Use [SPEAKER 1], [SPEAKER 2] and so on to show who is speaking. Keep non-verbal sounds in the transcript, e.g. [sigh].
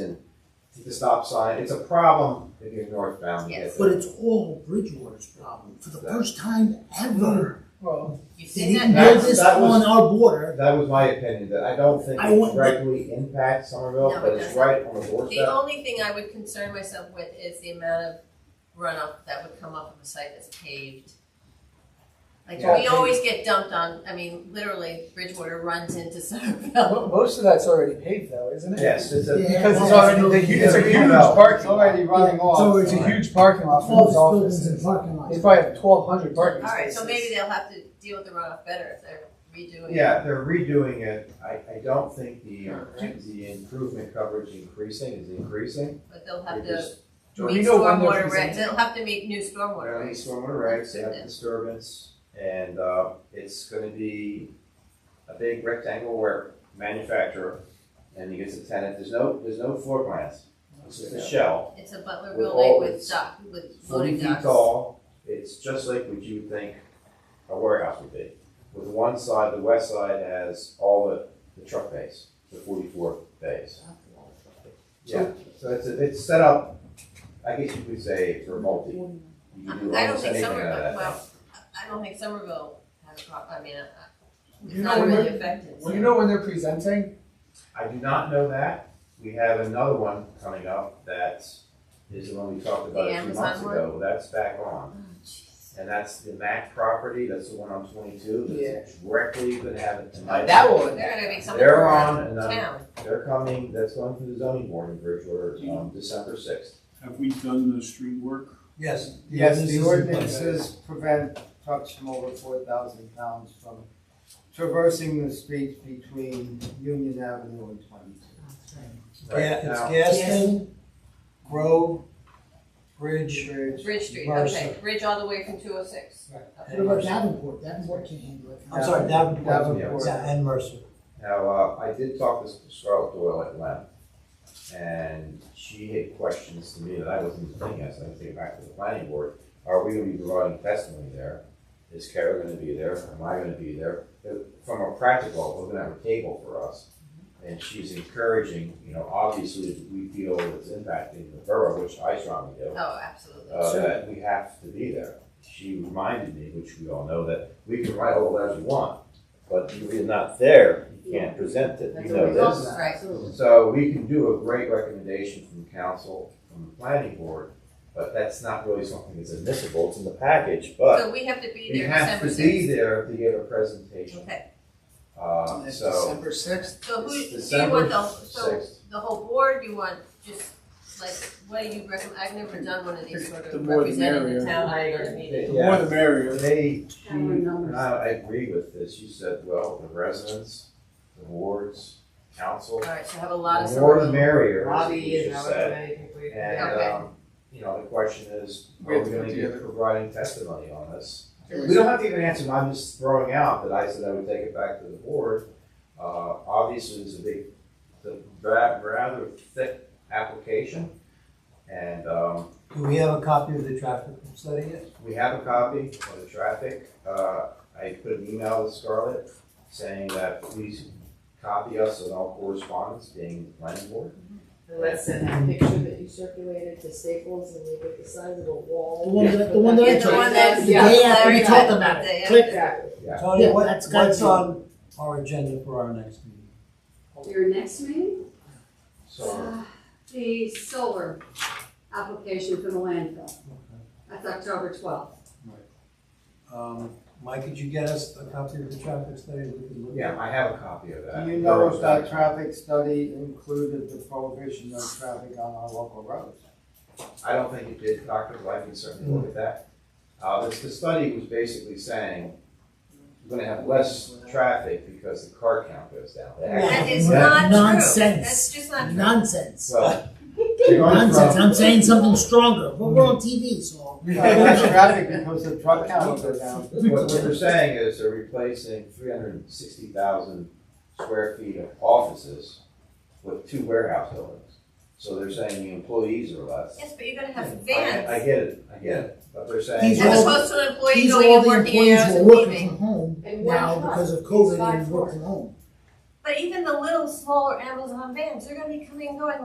[SPEAKER 1] and the stop sign, it's a problem if you're northbound. to get
[SPEAKER 2] Yes.
[SPEAKER 1] there.
[SPEAKER 3] But it's all Bridgewater's problem. For the first time ever,
[SPEAKER 2] Well, you've
[SPEAKER 3] they
[SPEAKER 2] seen
[SPEAKER 3] didn't
[SPEAKER 2] that.
[SPEAKER 3] build
[SPEAKER 1] That's-
[SPEAKER 3] this
[SPEAKER 1] that was-
[SPEAKER 3] on our border.
[SPEAKER 1] That was my opinion, that I don't think
[SPEAKER 3] I
[SPEAKER 1] it
[SPEAKER 3] want-
[SPEAKER 1] directly impacts Somerville,
[SPEAKER 2] No,
[SPEAKER 1] but
[SPEAKER 2] it
[SPEAKER 1] it's
[SPEAKER 2] doesn't.
[SPEAKER 1] right on the
[SPEAKER 2] The
[SPEAKER 1] doorstep.
[SPEAKER 2] only thing I would concern myself with is the amount of runoff that would come off of a site that's paved. Like,
[SPEAKER 1] Yeah.
[SPEAKER 2] we always get dumped on, I mean, literally Bridgewater runs into [laughs] Somerville.
[SPEAKER 4] Mo- Most of that's already paved though, isn't it?
[SPEAKER 1] Yes, it's a.
[SPEAKER 3] Yeah.
[SPEAKER 4] Because it's
[SPEAKER 3] Yeah.
[SPEAKER 4] already, the hu- it's a huge
[SPEAKER 1] Yeah.
[SPEAKER 4] park, it's already running
[SPEAKER 3] Yeah.
[SPEAKER 4] off. So it's a
[SPEAKER 1] Alright.
[SPEAKER 4] huge parking lot for
[SPEAKER 3] All
[SPEAKER 4] those
[SPEAKER 3] these buildings and
[SPEAKER 4] offices.
[SPEAKER 3] parking
[SPEAKER 4] They
[SPEAKER 3] lots.
[SPEAKER 4] probably have twelve hundred parking spaces.
[SPEAKER 2] Alright, so maybe they'll have to deal with the runoff better if they're redoing.
[SPEAKER 1] Yeah, they're redoing it, I, I don't think the, uh, the improvement coverage increasing is increasing.
[SPEAKER 2] But they'll have
[SPEAKER 1] They
[SPEAKER 2] to
[SPEAKER 1] just-
[SPEAKER 4] Do we
[SPEAKER 2] meet
[SPEAKER 4] know when they're
[SPEAKER 2] stormwater regs,
[SPEAKER 4] presenting?
[SPEAKER 2] they'll have to meet new
[SPEAKER 1] They're
[SPEAKER 2] stormwater
[SPEAKER 1] on
[SPEAKER 2] regs.
[SPEAKER 1] stormwater regs, they have
[SPEAKER 2] Goodness.
[SPEAKER 1] disturbance, and, uh, it's gonna be a big rectangle where manufacturer, and you get the tenant, there's no, there's no floor plans. It's just a shell.
[SPEAKER 2] It's a Butler
[SPEAKER 1] With
[SPEAKER 2] building
[SPEAKER 1] all
[SPEAKER 2] with
[SPEAKER 1] its
[SPEAKER 2] dock, with
[SPEAKER 1] forty
[SPEAKER 2] loading
[SPEAKER 1] feet
[SPEAKER 2] docks.
[SPEAKER 1] tall, it's just like what you would think a warehouse would be. With one side, the west side has all the, the truck bays, the forty-four bays. Yeah, so it's, it's set up, I guess you could say for multi, you
[SPEAKER 2] I
[SPEAKER 1] can do
[SPEAKER 2] I don't
[SPEAKER 1] almost
[SPEAKER 2] think
[SPEAKER 1] anything out of that thing.
[SPEAKER 2] Somerville, well, I I don't think Somerville has a problem, I mean, uh, uh, it's
[SPEAKER 4] You
[SPEAKER 2] not
[SPEAKER 4] know,
[SPEAKER 2] really
[SPEAKER 4] we're-
[SPEAKER 2] affected.
[SPEAKER 4] Do you know when they're presenting?
[SPEAKER 1] I do not know that. We have another one coming up that is the one we talked about
[SPEAKER 2] The
[SPEAKER 1] a few
[SPEAKER 2] Amazon
[SPEAKER 1] months
[SPEAKER 2] one?
[SPEAKER 1] ago. That's back on.
[SPEAKER 2] Oh, jeez.
[SPEAKER 1] And that's the Mac property, that's the one on twenty-two,
[SPEAKER 4] Yeah.
[SPEAKER 1] that's directly gonna have it tonight.
[SPEAKER 4] one.
[SPEAKER 2] They're gonna be something
[SPEAKER 1] They're
[SPEAKER 2] around
[SPEAKER 1] on, and um,
[SPEAKER 2] town.
[SPEAKER 1] they're coming, that's going through the zoning board in Bridgewater,
[SPEAKER 2] Mm-hmm.
[SPEAKER 1] um, December sixth.
[SPEAKER 5] Have we done the street work?
[SPEAKER 6] Yes.
[SPEAKER 4] Yes,
[SPEAKER 6] This
[SPEAKER 4] the
[SPEAKER 6] is
[SPEAKER 4] ordinances prevent trucks from over four thousand pounds from traversing the streets between Union Avenue and Twenty-Two.
[SPEAKER 6] Yeah, it's
[SPEAKER 1] Now,
[SPEAKER 6] Gaston, Grove, Bridge.
[SPEAKER 4] Bridge.
[SPEAKER 2] Bridge Street,
[SPEAKER 6] Bridge
[SPEAKER 2] okay, bridge all the way from two oh six.
[SPEAKER 3] What about Davenport? Davenport can't handle it.
[SPEAKER 6] I'm sorry, Davenport,
[SPEAKER 1] Davenport.
[SPEAKER 6] yeah, and Mercer.
[SPEAKER 1] Now, uh, I did talk to Scarlett Doyle at Lem, and she had questions to me that I wasn't even thinking of, so I had to take it back to the planning board. Are we gonna be providing testimony there? Is Kara gonna be there? Am I gonna be there? Uh, From a practical, we're gonna have a table for us. And she's encouraging, you know, obviously, we feel it's impacting the borough, which I strongly do
[SPEAKER 2] Oh, absolutely.
[SPEAKER 1] uh, that we have to be there. She reminded me, which we all know, that we can write all the letters we want, but if you're not there, you can't present it,
[SPEAKER 2] That's
[SPEAKER 1] you
[SPEAKER 2] what
[SPEAKER 1] know
[SPEAKER 2] we
[SPEAKER 1] this.
[SPEAKER 2] want, right.
[SPEAKER 1] So we can do a great recommendation from council, from the planning board, but that's not really something that's admissible, it's in the package, but
[SPEAKER 2] So we have to be
[SPEAKER 1] we
[SPEAKER 2] there
[SPEAKER 1] have
[SPEAKER 2] December
[SPEAKER 1] to be
[SPEAKER 2] sixth.
[SPEAKER 1] there to give a presentation.
[SPEAKER 2] Okay,
[SPEAKER 1] Uh, so
[SPEAKER 4] December sixth?
[SPEAKER 2] so who, do
[SPEAKER 1] it's
[SPEAKER 2] you want
[SPEAKER 1] December
[SPEAKER 2] the, so
[SPEAKER 1] sixth.
[SPEAKER 2] the whole board, you want just, like, what do you recommend? I've never done one of these sort
[SPEAKER 5] The
[SPEAKER 2] of
[SPEAKER 5] more the
[SPEAKER 2] representing the
[SPEAKER 5] merrier.
[SPEAKER 2] town at a meeting.
[SPEAKER 5] The more the merrier.
[SPEAKER 1] They, she, and I, I agree with this, you said, well, the residents, the wards, council.
[SPEAKER 2] All right, so have a lot of.
[SPEAKER 1] The more the
[SPEAKER 2] sort of-
[SPEAKER 1] merrier, as
[SPEAKER 7] Robbie
[SPEAKER 1] you
[SPEAKER 7] is
[SPEAKER 1] just
[SPEAKER 7] how
[SPEAKER 1] said.
[SPEAKER 7] everybody can wait.
[SPEAKER 1] And,
[SPEAKER 2] Okay.
[SPEAKER 1] um, you know, the question is,
[SPEAKER 4] We
[SPEAKER 1] are
[SPEAKER 4] have
[SPEAKER 1] we
[SPEAKER 4] to
[SPEAKER 1] gonna
[SPEAKER 4] put
[SPEAKER 1] be
[SPEAKER 4] together-
[SPEAKER 1] providing testimony on this?
[SPEAKER 4] Okay.
[SPEAKER 1] We don't have to give an answer, I'm just throwing out that I said I would take it back to the board. Uh, obviously, there's a big, the ra- rather thick application. And, um,
[SPEAKER 6] Do we have a copy of the traffic study yet?
[SPEAKER 1] we have a copy of the traffic. Uh, I put an email to Scarlett saying that please copy us on all correspondence being the planning board.
[SPEAKER 7] And let's send that picture that you circulated to Staples and make it the size of a
[SPEAKER 3] The
[SPEAKER 7] wall.
[SPEAKER 3] one that, the one that I
[SPEAKER 2] Yeah, the
[SPEAKER 3] took,
[SPEAKER 2] one that.
[SPEAKER 3] the day after
[SPEAKER 2] Larry
[SPEAKER 3] we
[SPEAKER 2] got
[SPEAKER 3] talked about
[SPEAKER 2] the-
[SPEAKER 3] it. Click.
[SPEAKER 7] Exactly.
[SPEAKER 6] Tony,
[SPEAKER 3] Yeah,
[SPEAKER 6] what,
[SPEAKER 3] that's gotta
[SPEAKER 6] what's
[SPEAKER 3] be-
[SPEAKER 6] on our agenda for our next meeting?
[SPEAKER 8] Your next meeting?
[SPEAKER 1] So
[SPEAKER 8] Uh, The solar application for the landfill. That's October twelfth.
[SPEAKER 6] Um, Mike, could you get us a copy of the traffic study? that we can look at?
[SPEAKER 1] yeah, I have a copy of that.
[SPEAKER 4] Do you know if that traffic study included the prohibition of traffic on our local roads?
[SPEAKER 1] I don't think it did, Doctor, but I can certainly look at that. Uh, this, the study was basically saying we're gonna have less traffic because the car count goes down. They actually-
[SPEAKER 2] That is
[SPEAKER 1] Yeah.
[SPEAKER 2] not true.
[SPEAKER 3] Nonsense.
[SPEAKER 2] That's just not true.
[SPEAKER 3] Nonsense.
[SPEAKER 1] Well, they're going
[SPEAKER 3] Nonsense.
[SPEAKER 1] from,
[SPEAKER 3] I'm saying something stronger. But we're on TV, so.
[SPEAKER 4] Uh,
[SPEAKER 6] [laughs]
[SPEAKER 4] [laughs] less traffic because the truck count goes down.
[SPEAKER 1] what, what they're saying is they're replacing three hundred and sixty thousand square feet of offices with two warehouse buildings. So they're saying the employees are less.
[SPEAKER 2] Yes, but you're gonna have
[SPEAKER 1] I- I
[SPEAKER 2] vans,
[SPEAKER 1] get it, I get it, but they're saying.
[SPEAKER 3] These
[SPEAKER 2] as
[SPEAKER 3] all-
[SPEAKER 2] opposed to an employee
[SPEAKER 3] These are
[SPEAKER 2] going
[SPEAKER 3] all
[SPEAKER 2] and
[SPEAKER 3] the
[SPEAKER 2] working eight
[SPEAKER 3] employees
[SPEAKER 2] hours
[SPEAKER 3] who
[SPEAKER 2] and
[SPEAKER 3] are working
[SPEAKER 2] leaving.
[SPEAKER 3] from home
[SPEAKER 7] And one
[SPEAKER 3] now
[SPEAKER 7] truck
[SPEAKER 3] because of
[SPEAKER 7] is
[SPEAKER 3] COVID
[SPEAKER 7] five
[SPEAKER 3] and work
[SPEAKER 7] cars.
[SPEAKER 3] from home.
[SPEAKER 2] But even the little smaller Amazon vans, they're gonna be coming and going